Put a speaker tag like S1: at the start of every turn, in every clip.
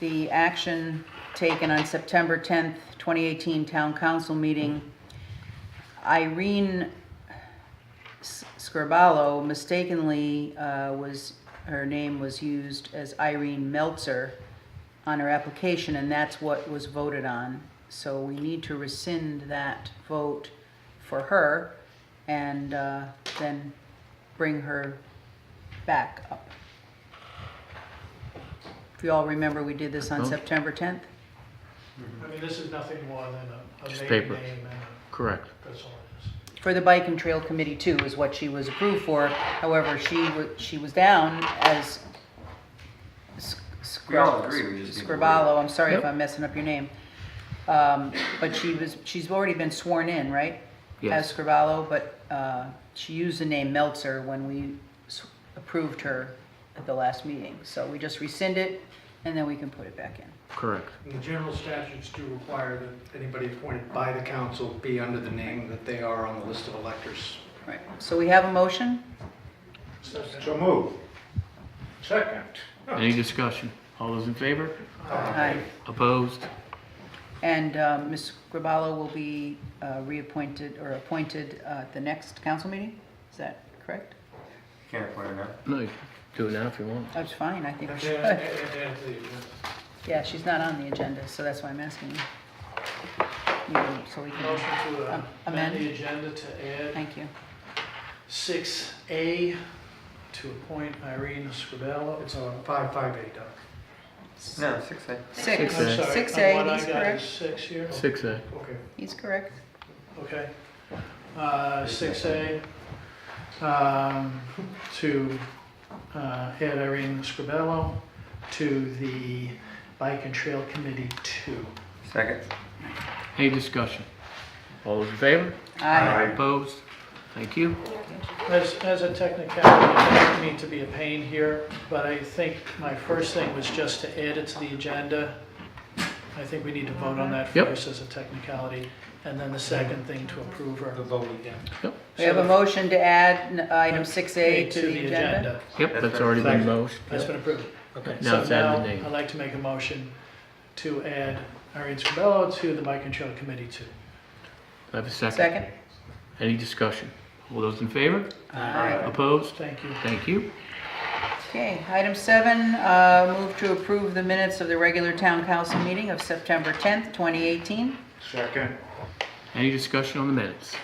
S1: the action taken on September 10th, 2018 Town Council meeting, Irene S- Scarballo mistakenly uh, was, her name was used as Irene Meltzer on her application, and that's what was voted on. So we need to rescind that vote for her and uh, then bring her back up. If you all remember, we did this on
S2: Well-
S1: September 10th.
S3: I mean, this is nothing more than a, a
S2: Just
S3: maiden
S2: paper.
S3: name and
S2: Correct.
S3: a- that's all it is.
S1: for the Bike and Trail Committee too, is what she was approved for. However, she was, she was down as Sc-
S4: We all agree, we just need to word it.
S1: Scribalo, I'm sorry if
S2: Yep.
S1: I'm messing up your name. Um, but she was, she's already been sworn in, right?
S2: Yes.
S1: As Scribalo, but, uh, she used the name Meltzer when we s- approved her at the last meeting. So we just rescind it and then we can put it back in.
S2: Correct.
S5: And The general statutes do require that anybody appointed by the council be under the name that they are on the list of electors.
S1: Right, so we have a motion?
S5: So move. Second.
S2: Any discussion? All those in favor?
S1: Aye.
S2: Opposed?
S1: And uh, Ms. Grabalo will be uh, reappointed or appointed uh, at the next council meeting? Is that correct?
S4: Can't appoint her now.
S2: No, you can do it now if you want.
S1: That's fine, I think.
S3: And
S1: we should.
S3: then, and then the agenda.
S1: Yeah, she's not on the agenda, so that's why I'm asking you. You- So we can,
S3: Motion to uh,
S1: Am- amend?
S3: amend the agenda to add
S1: thank you.
S3: six A to appoint Irene Scribello. It's on
S5: Five, five, eight, Doc.
S4: No, six A.
S1: Six,
S2: Six A.
S1: six
S3: What
S1: A,
S3: I
S1: he's
S3: got is
S1: correct.
S3: six here,
S2: Six uh, A.
S5: Okay.
S1: He's correct.
S3: okay. Uh, six A, um, to, uh, add Irene Scribello to the Bike and Trail Committee Two.
S4: Second.
S2: Any discussion? All those in favor?
S1: Aye.
S2: Opposed? Thank you.
S3: As, as a technicality, I don't mean to be a pain here, but I think my first thing was just to add it to the agenda. I think we need to vote on that
S2: Yep.
S3: first as a technicality, and then the second thing to approve or.
S5: The vote again.
S1: We have a motion to add n- item six A
S3: Add
S1: to the agenda.
S2: Yep, that's already been motion.
S3: That's been approved.
S5: Okay.
S2: Now it's added
S3: So
S2: name.
S3: now, I'd like to make a motion to add Irene Scribello to the Bike and Trail Committee too.
S2: I have a second.
S1: Second?
S2: Any discussion? All those in favor?
S1: Aye.
S2: Opposed?
S3: Thank you.
S2: Thank you.
S1: Okay, item seven, uh, move to approve the minutes of the regular town council meeting of September 10th, 2018.
S5: Second.
S2: Any discussion on the minutes?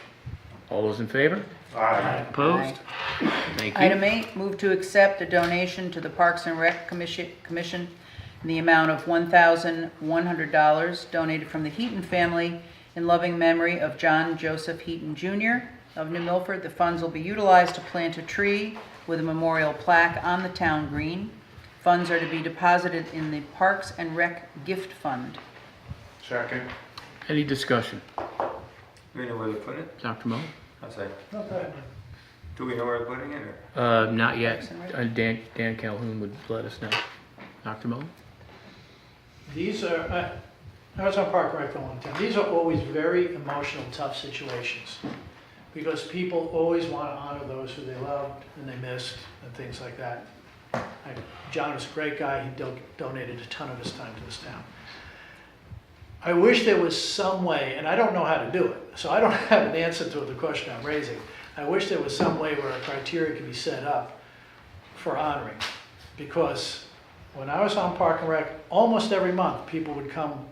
S2: All those in favor?
S5: Aye.
S2: Opposed? Thank you.
S1: Item eight, move to accept a donation to the Parks and Rec Commission Commission in the amount of $1,100 donated from the Heaton family in loving memory of John Joseph Heaton Jr. of New Milford. The funds will be utilized to plant a tree with a memorial plaque on the town green. Funds are to be deposited in the Parks and Rec Gift Fund.
S5: Second.
S2: Any discussion?
S4: Do we know where they're putting it?
S2: Dr. Mo?
S4: I'm sorry.
S3: Not bad.
S4: Do we know where they're putting it or?
S2: Uh, not yet. Uh, Dan, Dan Calhoun would let us know. Dr. Mo?
S3: These are, I- I was on Park and Rec for a long time, these are always very emotional, tough situations. Because people always want to honor those who they loved and they missed and things like that. Like, John was a great guy, he do- donated a ton of his time to this town. I wish there was some way, and I don't know how to do it, so I don't have an answer to the question I'm raising. I wish there was some way where a criteria could be set up for honoring. Because when I was on Park and Rec, almost every month, people would come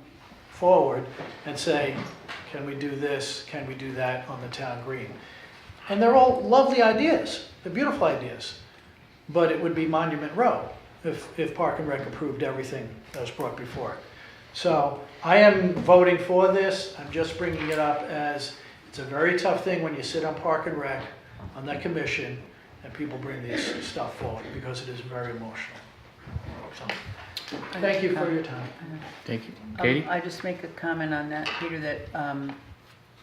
S3: forward and say, can we do this, can we do that on the town green? And they're all lovely ideas, they're beautiful ideas, but it would be Monument Row if, if Park and Rec approved everything that was brought before it. So I am voting for this, I'm just bringing it up as, it's a very tough thing when you sit on Park and Rec, on that commission, and people bring this stuff forward, because it is very emotional. So, Thank you for your time.
S2: Thank you.
S1: Um,
S2: Katie?
S1: I just make a comment on that, Peter, that, um,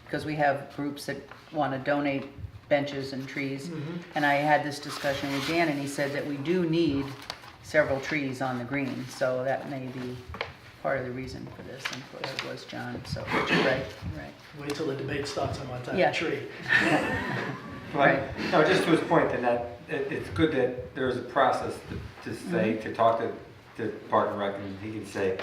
S1: because we have groups that want to donate benches and trees.
S3: Mm-hmm.
S1: And I had this discussion with Dan, and he said that we do need several trees on the green, so that may be part of the reason for this. And of course, it was John, so, but you're right, you're right.
S3: Wait till the debate starts on what type
S1: Yeah.
S3: of tree.
S1: Right.
S4: Like, No, just to his point that that, it, it's good that there is a process to, to say, to talk to the park and rec, and he can say,